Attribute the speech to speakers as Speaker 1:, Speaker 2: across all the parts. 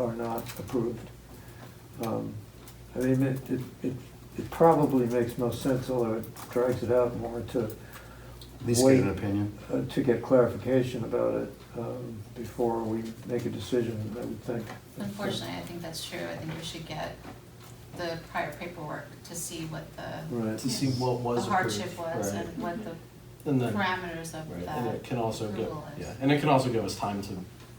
Speaker 1: are not approved. Um, I mean, it, it, it it probably makes most sense, although it drags it out more to,
Speaker 2: At least get an
Speaker 1: Wait.
Speaker 2: opinion.
Speaker 1: uh, to get clarification about it um, before we make a decision, I would think.
Speaker 3: Unfortunately, I think that's true. I think we should get the prior paperwork to see what the
Speaker 1: Right.
Speaker 4: to see what
Speaker 3: the
Speaker 4: was approved.
Speaker 3: hardship was
Speaker 4: right.
Speaker 3: and what the
Speaker 4: And then, right,
Speaker 3: parameters of
Speaker 4: and
Speaker 3: that
Speaker 4: it can also give,
Speaker 3: approval is.
Speaker 4: yeah, and it can also give us time to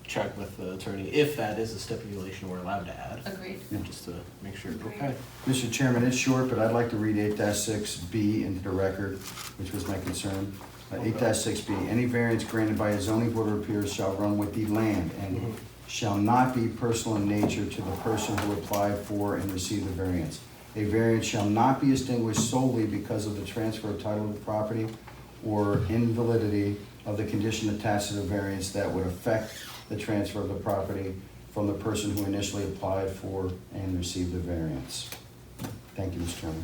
Speaker 4: check with the attorney if that is a stipulation we're allowed to add,
Speaker 3: Agreed.
Speaker 2: Yeah.
Speaker 4: just to make sure,
Speaker 3: Agreed.
Speaker 4: okay.
Speaker 2: Mr. Chairman, it's short, but I'd like to read eight six B into the record, which was my concern. Uh, Eight six B, any variance granted by a zoning board of appeals shall run with the land and
Speaker 4: Mhm.
Speaker 2: shall not be personal in nature to the person who applied for and received the variance. A variance shall not be extinguished solely because of the transfer of title of the property or invalidity of the condition attached to the variance that would affect the transfer of the property from the person who initially applied for and received the variance. Thank you, Mr. Chairman.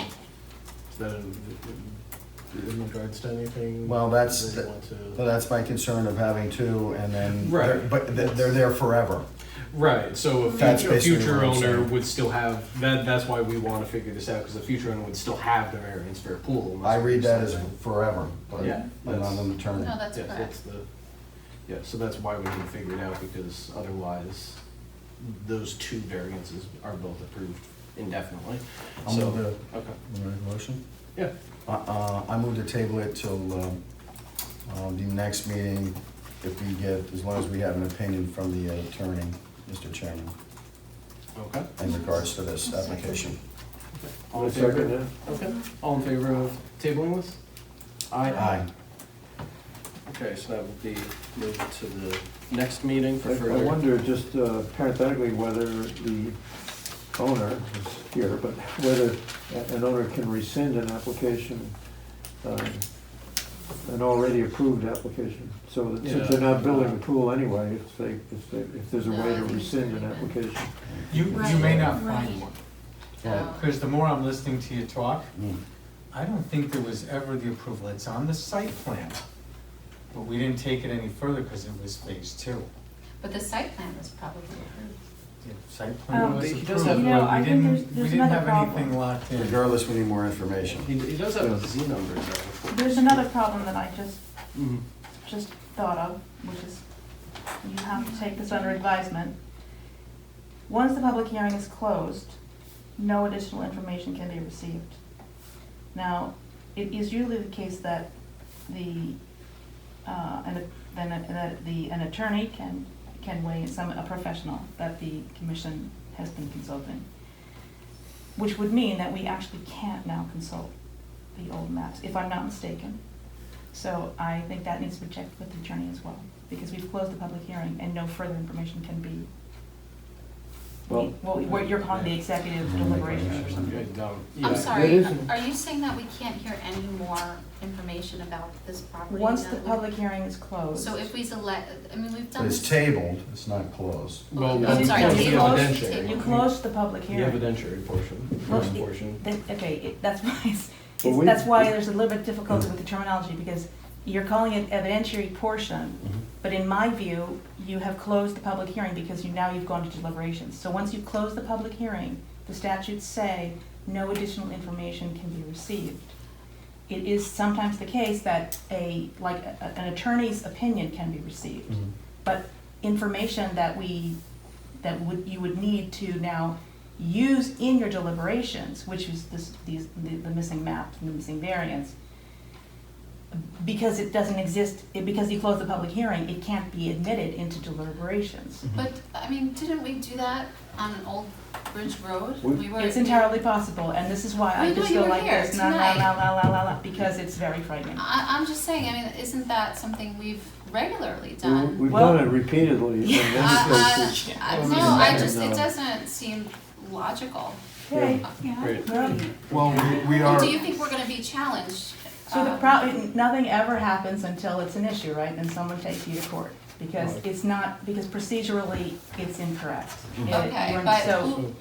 Speaker 4: Is that in, in regards to anything?
Speaker 2: Well, that's-
Speaker 4: They want to-
Speaker 2: So that's my concern of having two and then,
Speaker 4: Right.
Speaker 2: but they're they're there forever.
Speaker 4: Right, so a
Speaker 2: That's
Speaker 4: future, a
Speaker 2: basically
Speaker 4: future
Speaker 2: what I'm
Speaker 4: owner
Speaker 2: saying.
Speaker 4: would still have, that, that's why we wanna figure this out, cause the future owner would still have the variance for a pool.
Speaker 2: I read that as forever, but
Speaker 4: Yeah,
Speaker 2: I'm not an attorney.
Speaker 3: No, that's
Speaker 4: Yes,
Speaker 3: correct.
Speaker 4: that's the, yeah, so that's why we can figure it out, because otherwise, those two variances are both approved indefinitely.
Speaker 2: I'll
Speaker 4: So,
Speaker 2: move
Speaker 4: okay,
Speaker 2: Motion?
Speaker 4: yeah,
Speaker 2: Uh, uh, I move to table it till um, uh, the next meeting, if we get, as long as we have an opinion from the attorney, Mr. Chairman,
Speaker 4: okay.
Speaker 2: in regards to this application.
Speaker 4: All in
Speaker 1: Second,
Speaker 4: favor? Okay, all in favor of tabling this?
Speaker 2: Aye.
Speaker 4: Okay, so that would be moved to the next meeting
Speaker 1: I
Speaker 4: for
Speaker 1: I
Speaker 4: further.
Speaker 1: wonder, just uh, parenthetically, whether the owner, who's here, but whether a- an owner can rescind an application, um, an already approved application. So that since they're not building a pool anyway, if they, if they, if there's a
Speaker 3: No,
Speaker 1: way to
Speaker 3: I think it's
Speaker 1: rescind an
Speaker 3: pretty good.
Speaker 1: application.
Speaker 5: You, you may not find
Speaker 3: Right.
Speaker 5: one,
Speaker 3: So-
Speaker 5: because the more I'm listening to you talk,
Speaker 2: Mm.
Speaker 5: I don't think there was ever the approval, it's on the site plan. But we didn't take it any further because it was phase two.
Speaker 3: But the site plan was probably approved.
Speaker 5: The site
Speaker 6: Um,
Speaker 5: plan was
Speaker 4: He
Speaker 5: approved,
Speaker 4: does
Speaker 5: but
Speaker 4: have-
Speaker 5: we
Speaker 4: You know,
Speaker 6: I think there's-
Speaker 5: didn't, we
Speaker 6: there's
Speaker 5: didn't have
Speaker 6: another
Speaker 5: anything
Speaker 6: problem.
Speaker 5: locked in.
Speaker 2: Regardless, we need more information.
Speaker 4: He, he does have a Z number though.
Speaker 6: There's another problem that I just,
Speaker 4: Mhm.
Speaker 6: just thought of, which is you have to take this under advisement. Once the public hearing is closed, no additional information can be received. Now, it is usually the case that the, uh, an, then, a- that the, an attorney can, can weigh in, some, a professional that the commission has been consulting. Which would mean that we actually can't now consult the old maps, if I'm not mistaken. So I think that needs to be checked with the attorney as well, because we've closed the public hearing and no further information can be.
Speaker 1: Well-
Speaker 6: Well, we're- you're calling the executive deliberations or
Speaker 4: Okay,
Speaker 6: something.
Speaker 4: no, yeah.
Speaker 3: I'm sorry,
Speaker 1: It isn't-
Speaker 3: are you saying that we can't hear any more information about this property?
Speaker 6: Once
Speaker 3: now
Speaker 6: the
Speaker 3: that we-
Speaker 6: public hearing is closed.
Speaker 3: So if we select, I mean, we've
Speaker 2: But
Speaker 3: done
Speaker 2: it's
Speaker 3: this.
Speaker 2: tabled, it's not closed.
Speaker 4: Well,
Speaker 3: I'm
Speaker 4: we
Speaker 3: sorry,
Speaker 4: closed
Speaker 3: we
Speaker 4: the
Speaker 3: closed-
Speaker 4: evidentiary.
Speaker 6: You closed the public
Speaker 4: The
Speaker 6: hearing.
Speaker 4: evidentiary portion, the
Speaker 6: Well,
Speaker 4: first
Speaker 6: it-
Speaker 4: portion.
Speaker 6: that- Okay, it- that's why, it's-
Speaker 1: Well,
Speaker 6: it's-
Speaker 1: we-
Speaker 6: that's why there's a little bit difficulty with the terminology, because you're calling it evidentiary portion,
Speaker 4: Mm-hmm.
Speaker 6: but in my view, you have closed the public hearing because you, now you've gone to deliberations. So once you close the public hearing, the statutes say no additional information can be received. It is sometimes the case that a, like, a- a- an attorney's opinion can be received.
Speaker 4: Mm-hmm.
Speaker 6: But information that we, that would, you would need to now use in your deliberations, which is this, these, the, the missing map, the missing variance, because it doesn't exist, it- because you closed the public hearing, it can't be admitted into deliberations.
Speaker 3: But, I mean, didn't we do that on Old Bridge Road?
Speaker 1: We-
Speaker 3: We were.
Speaker 6: It's entirely possible, and this is why
Speaker 3: We
Speaker 6: I
Speaker 3: know
Speaker 6: just
Speaker 3: you
Speaker 6: go
Speaker 3: were
Speaker 6: like
Speaker 3: here
Speaker 6: this, la la
Speaker 3: tonight.
Speaker 6: la la la la la, because it's very frightening.
Speaker 3: I, I'm just saying, I mean, isn't that something we've regularly
Speaker 1: We-
Speaker 3: done?
Speaker 1: We've
Speaker 6: Well-
Speaker 1: done it repeatedly in many
Speaker 3: I-
Speaker 1: cases.
Speaker 3: I- I-
Speaker 1: Well,
Speaker 3: No,
Speaker 1: I mean,
Speaker 3: I
Speaker 1: and,
Speaker 3: just, it
Speaker 1: uh,
Speaker 3: doesn't seem logical.
Speaker 6: Okay,
Speaker 4: Great.
Speaker 6: well,
Speaker 2: Well, we- we are.
Speaker 3: Do you think we're gonna be challenged?
Speaker 6: So the
Speaker 3: um,
Speaker 6: problem, nothing ever happens until it's an issue, right? Then someone takes you to court, because
Speaker 4: Right.
Speaker 6: it's not, because procedurally, it's incorrect. It-
Speaker 3: Okay,
Speaker 6: we're-
Speaker 3: but
Speaker 6: So,
Speaker 3: who-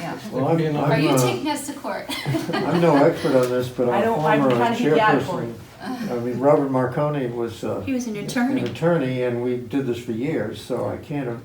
Speaker 6: yeah.
Speaker 1: Well, I'm, I'm,
Speaker 3: are you
Speaker 1: uh,
Speaker 3: taking us to court?
Speaker 1: I'm no expert on this, but
Speaker 6: I
Speaker 1: I'm a
Speaker 6: don't- I'm
Speaker 1: former
Speaker 6: trying to get you out of court.
Speaker 1: chairperson. I mean, Robert Marconi was, uh,
Speaker 7: He was an
Speaker 1: an
Speaker 7: attorney.
Speaker 1: attorney, and we did this for years, so I can't,